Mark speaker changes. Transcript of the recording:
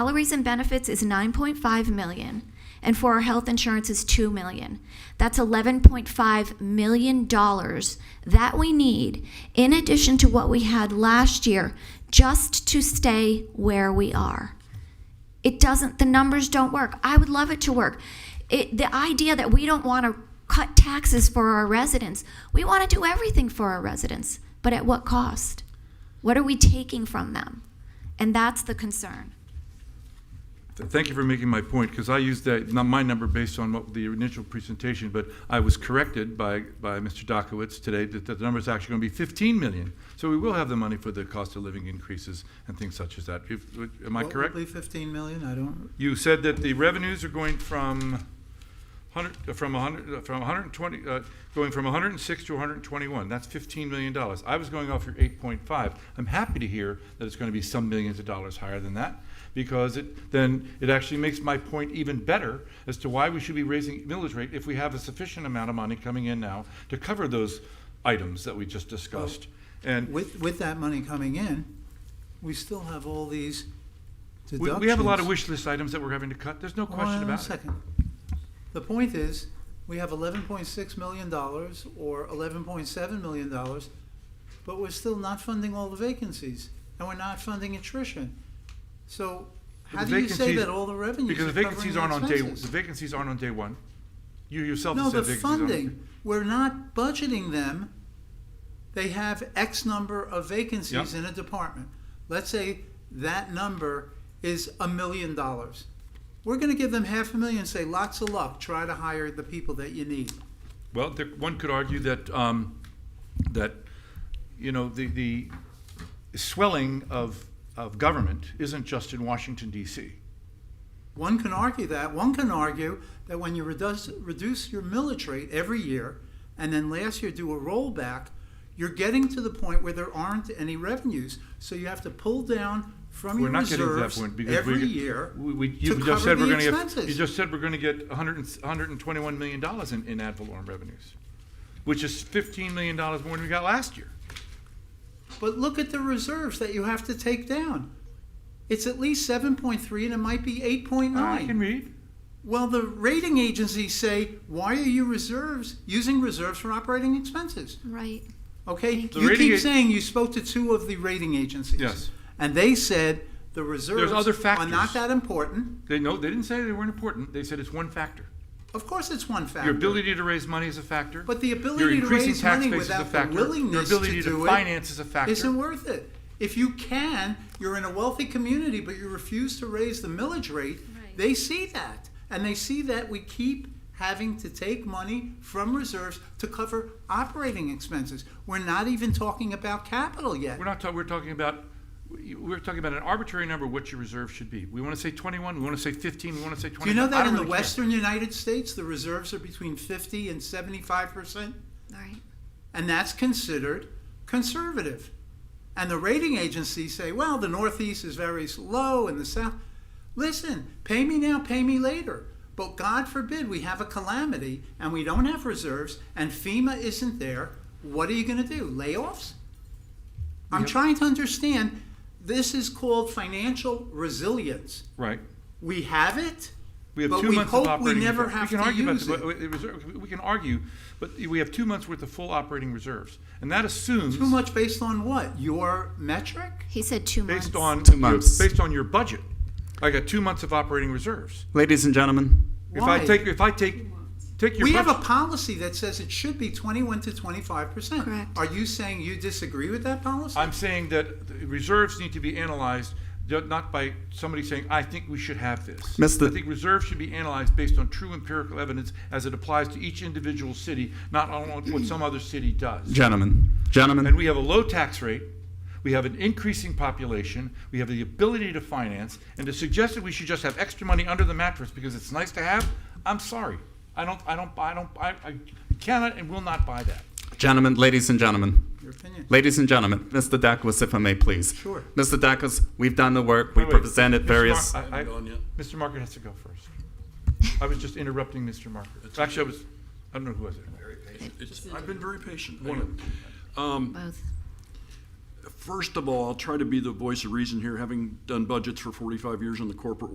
Speaker 1: Salaries and benefits is 9.5 million, and for our health insurance is 2 million. That's 11.5 million dollars that we need in addition to what we had last year just to stay where we are. It doesn't, the numbers don't work. I would love it to work. It, the idea that we don't want to cut taxes for our residents, we want to do everything for our residents, but at what cost? What are we taking from them? And that's the concern.
Speaker 2: Th- Thank you for making my point, because I used that, not my number based on what the initial presentation, but I was corrected by, by Mr. Dokowitz today that that the number's actually going to be 15 million. So we will have the money for the cost of living increases and things such as that. If- Am I correct?
Speaker 3: What would be fifteen million? I don't,
Speaker 2: You said that the revenues are going from 100, uh, from 100, uh, from 120, uh, going from 106 to 121. That's 15 million dollars. I was going off your 8.5. I'm happy to hear that it's going to be some millions of dollars higher than that because it then it actually makes my point even better as to why we should be raising millage rate if we have a sufficient amount of money coming in now to cover those items that we just discussed. And
Speaker 3: with, with that money coming in, we still have all these
Speaker 2: we,
Speaker 3: deductions.
Speaker 2: we have a lot of wish list items that we're having to cut. There's no
Speaker 3: Hold
Speaker 2: question
Speaker 3: on a
Speaker 2: about it.
Speaker 3: second. The point is, we have eleven point six million dollars or eleven point seven million dollars, but we're still not funding all the vacancies, and we're not funding attrition. So how
Speaker 2: The
Speaker 3: do you say
Speaker 2: vacancies-
Speaker 3: that all the revenues
Speaker 2: Because
Speaker 3: are
Speaker 2: the
Speaker 3: covering
Speaker 2: vacancies aren't on day, the
Speaker 3: expenses?
Speaker 2: vacancies aren't on day one. You yourself
Speaker 3: No,
Speaker 2: said
Speaker 3: the
Speaker 2: vacancies aren't.
Speaker 3: funding, we're not budgeting them. They have X number of vacancies
Speaker 2: Yeah.
Speaker 3: in a department. Let's say that number is a million dollars. We're gonna give them half a million, and say lots of luck, try to hire the people that you need.
Speaker 2: Well, there, one could argue that, um, that, you know, the, the swelling of, of government isn't just in Washington DC.
Speaker 3: One can argue that, one can argue that when you reduce, reduce your millage rate every year, and then last year do a rollback, you're getting to the point where there aren't any revenues. So you have to pull down from
Speaker 2: We're
Speaker 3: your
Speaker 2: not getting to that
Speaker 3: reserves
Speaker 2: point because we.
Speaker 3: every year.
Speaker 2: We, we-
Speaker 3: to
Speaker 2: you
Speaker 3: cover
Speaker 2: just said we're
Speaker 3: the
Speaker 2: gonna get, you
Speaker 3: expenses.
Speaker 2: just said we're gonna get a hundred and, s- a hundred and twenty-one million dollars in, in ad valorem revenues, which is fifteen million dollars more than we got last year.
Speaker 3: But look at the reserves that you have to take down. It's at least seven point three and it might be eight point
Speaker 2: I can
Speaker 3: nine.
Speaker 2: read.
Speaker 3: Well, the rating agencies say, why are you reserves, using reserves for operating expenses?
Speaker 1: Right.
Speaker 3: Okay,
Speaker 1: Thank
Speaker 2: The
Speaker 3: you
Speaker 2: rating
Speaker 3: keep
Speaker 2: a-
Speaker 3: saying you spoke to two of the rating agencies.
Speaker 2: Yes.
Speaker 3: And they said the reserves
Speaker 2: other
Speaker 3: are not
Speaker 2: factors.
Speaker 3: that important.
Speaker 2: They know, they didn't say they weren't important. They said it's one factor.
Speaker 3: Of course, it's one factor.
Speaker 2: Your ability to raise money is a factor.
Speaker 3: But the ability
Speaker 2: Your
Speaker 3: to
Speaker 2: increasing
Speaker 3: raise
Speaker 2: tax
Speaker 3: money
Speaker 2: base is a
Speaker 3: without the
Speaker 2: factor.
Speaker 3: willingness
Speaker 2: Your ability
Speaker 3: to do it
Speaker 2: finance is a factor.
Speaker 3: isn't worth it. If you can, you're in a wealthy community, but you refuse to raise the millage rate,
Speaker 1: Right.
Speaker 3: they see that. And they see that we keep having to take money from reserves to cover operating expenses. We're not even talking about capital yet.
Speaker 2: We're not talking, we're talking about, we're talking about an arbitrary number of what your reserve should be. We want to say 21, we want to say 15, we want to say 25.
Speaker 3: Do you know
Speaker 2: I
Speaker 3: that
Speaker 2: don't
Speaker 3: in the
Speaker 2: really care.
Speaker 3: western United States, the reserves are between 50 and 75%?
Speaker 1: All right.
Speaker 3: and that's considered conservative. And the rating agencies say, well, the Northeast is very low and the South. Listen, pay me now, pay me later. But God forbid we have a calamity and we don't have reserves and FEMA isn't there. What are you going to do? Layoffs? I'm
Speaker 2: Yep.
Speaker 3: trying to understand. This is called financial resilience.
Speaker 2: Right.
Speaker 3: We have it,
Speaker 2: We have
Speaker 3: but
Speaker 2: two
Speaker 3: we
Speaker 2: months
Speaker 3: hope
Speaker 2: of operating.
Speaker 3: we never
Speaker 2: reserve.
Speaker 3: have
Speaker 2: can
Speaker 3: to
Speaker 2: argue about
Speaker 3: use
Speaker 2: the-
Speaker 3: it.
Speaker 2: but the reserve- We can argue, but we have two months worth of full operating reserves. And that assumes.
Speaker 3: Too much based on what? Your metric?
Speaker 1: He said two months.
Speaker 2: Based on.
Speaker 4: Two
Speaker 2: your-
Speaker 4: months.
Speaker 2: Based on your budget. I got two months of operating reserves.
Speaker 4: Ladies and gentlemen,
Speaker 2: If I
Speaker 3: Why?
Speaker 2: take, if I take, take your.
Speaker 3: We have a
Speaker 2: budget-
Speaker 3: policy that says it should be twenty-one to twenty-five percent.
Speaker 1: Correct.
Speaker 3: Are you saying you disagree with that policy?
Speaker 2: I'm saying that the reserves need to be analyzed, ju- not by somebody saying, I think we should have this.
Speaker 4: Mr.
Speaker 2: I think reserves should be analyzed based on true empirical evidence as it applies to each individual city, not on what- what some other city does.
Speaker 4: gentlemen,
Speaker 2: And
Speaker 4: gentlemen,
Speaker 2: we have a low tax rate, we have an increasing population, we have the ability to finance, and to suggest that we should just have extra money under the mattress because it's nice to have, I'm sorry. I don't, I don't, I don't, I I cannot and will not buy that.
Speaker 4: gentlemen, ladies and gentlemen,
Speaker 3: Your opinion.
Speaker 4: ladies and gentlemen, Mr. Dakos, if I may, please.
Speaker 3: Sure.
Speaker 4: Mr. Dakos, we've done the work, we
Speaker 2: Wait, wait.
Speaker 4: presented
Speaker 2: Mr.
Speaker 4: various.
Speaker 2: Mar- I- I- Mr. Market has to go first. I was just interrupting Mr. Market. Actually, I was, I don't know who was it.
Speaker 5: It's- I've been very patient.
Speaker 2: One of them.
Speaker 5: Um,
Speaker 1: Both.
Speaker 5: first of all, I'll try to be the voice of reason here, having done budgets for 45 years in the corporate